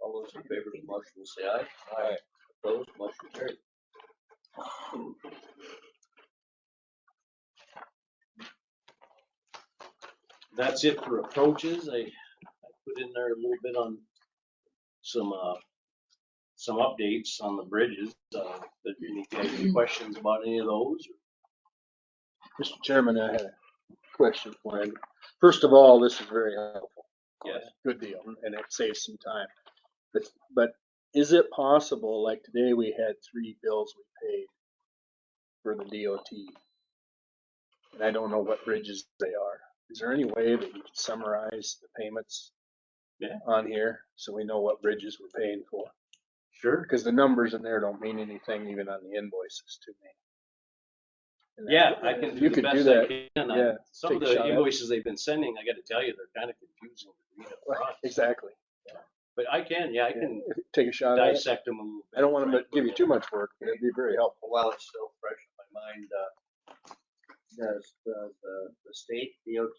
All those in favor of the motion will say aye. Aye. Opposed, motion carried. That's it for approaches. I, I put in there a little bit on some, uh, some updates on the bridges. Uh, but any guys have any questions about any of those? Mr. Chairman, I had a question for you. First of all, this is very helpful. Yes. Good deal, and it saves some time. But, but is it possible, like today we had three bills we paid for the DOT? And I don't know what bridges they are. Is there any way that you could summarize the payments? Yeah. On here, so we know what bridges we're paying for? Sure. Because the numbers in there don't mean anything even on the invoices to me. And Yeah, I can do You the could best that. I can. I- Yeah, Some of take a shot the at it. invoices they've been sending, I gotta tell you, they're kind of confusing. to read up front. exactly. But I can, yeah, I can Take a shot at it. dissect them a little bit. I don't want them to give you too much work, but it'd be very helpful. But While it's still fresh in my mind, uh, does the, the, the state DOT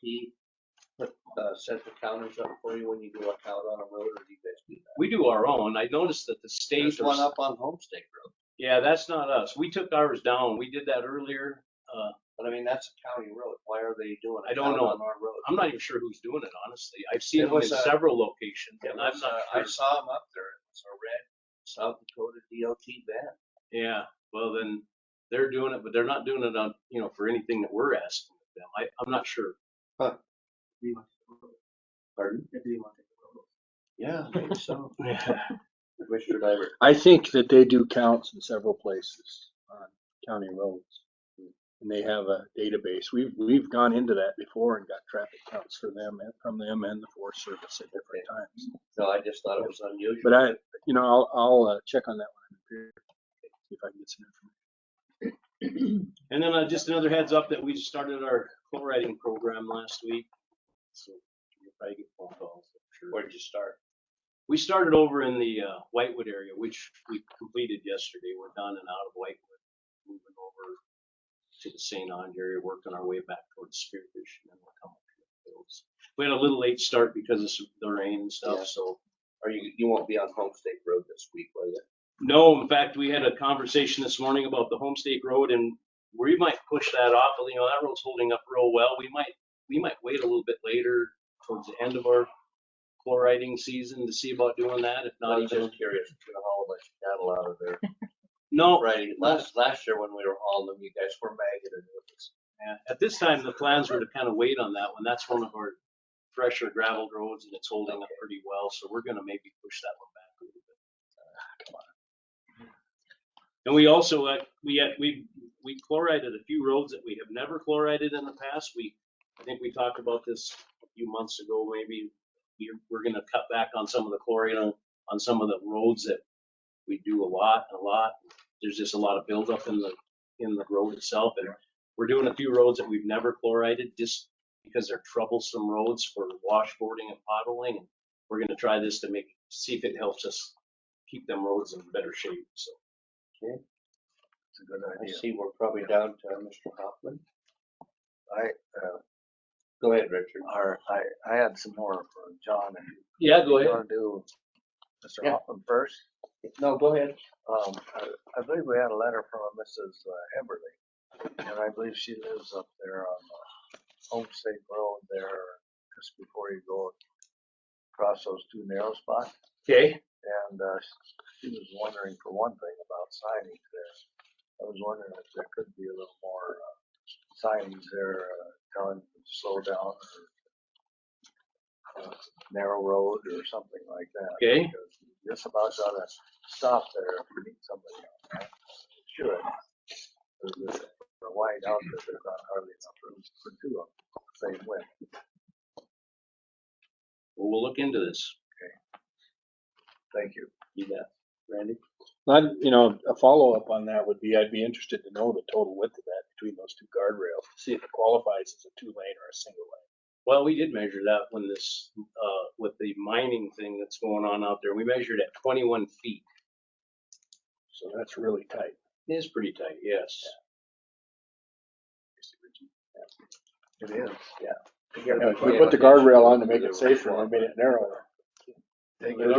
put, uh, set the counters up for you when you do a count on a road or do you guys do that? We do our own. I noticed that the state There's or one up on Homestead Road, Yeah, that's not us. We took ours down. We did that earlier. Uh, but I mean, that's a county road. Why are they doing I a don't count know. on our road? I'm not even sure who's doing it, honestly. I've seen It them in was, uh, several locations It and I'm was, uh, I not sure. saw him up there. It was a red South Dakota DOT van. Yeah, well then, they're doing it, but they're not doing it on, you know, for anything that we're asking of them. I, I'm not sure. Pardon? Yeah, maybe so. Commissioner Diver. I think that they do counts in several places on county roads. And they have a database. We've, we've gone into that before and got traffic counts for them and from them and the Forest Service at different times. No, I just thought it was unusual. But I, you know, I'll, I'll uh, check on that one here, see if I can get some information. And then uh, just another heads up that we just started our co-writing program last week. So you'll probably get phone calls, I'm sure. Where'd you start? We started over in the uh, Whitewood area, which we completed yesterday. We're done and out of Whitewood, moving over to the St. Ange area, working our way back towards Spearfish, and then we'll come up to the fields. We had a little late start because of some- the rain and Yeah. stuff, so Or you, you won't be on Homestead Road this week, will you? No, in fact, we had a conversation this morning about the Homestake Road and we might push that off. You know, that road's holding up real well. We might, we might wait a little bit later towards the end of our chloriding season to see about doing that, if not I'm even. just curious, if you're gonna haul a bunch of cattle out of there. No, Right, last, last year when we were hauling them, you guys were maggoted with us. yeah. at this time, the plans were to kind of wait on that one. That's one of our fresher gravel roads and it's holding up pretty well. So we're gonna maybe push that one back a little bit. And we also, uh, we, had- we, we chlorided a few roads that we have never chlorided in the past. We, I think we talked about this a few months ago, maybe. We're, we're gonna cut back on some of the chlorine on, on some of the roads that we do a lot, a lot. There's just a lot of buildup in the, in the road itself. And we're doing a few roads that we've never chlorided just because they're troublesome roads for washboarding and puddling. And We're gonna try this to make, see if it helps us keep them roads in better shape, so. It's a good idea. I see we're probably down to Mr. Hoffman. I, uh, Go ahead, Richard. or I, I had some more for John. and Yeah, go You ahead. wanna do Mr. Yeah. Hoffman first? No, go ahead. Um, I, I believe we had a letter from a Mrs. Heberly, and I believe she lives up there on uh, Home State Road there, just before you go across those two narrow spots. Okay. And, uh, she was wondering for one thing about signings there. I was wondering if there could be a little more, uh, signings there, uh, telling them to slow down or uh, narrow road or something like that. Okay. because you Just about gotta stop there if you meet somebody else, right? Sure. They're wide out, but there's not hardly enough room for two of them, same way. Well, we'll look into this. Thank you. You bet. Randy? Not, you know, a follow-up on that would be, I'd be interested to know the total width of that between those two guardrails, see if it qualifies as a two-lane or a single lane. Well, we did measure that when this, uh, with the mining thing that's going on out there. We measured at twenty-one feet. So that's really tight. It is pretty tight, yes. It is. You gotta Yeah, be We quick. put the guardrail on to make it safer, we made it narrower. Take Well,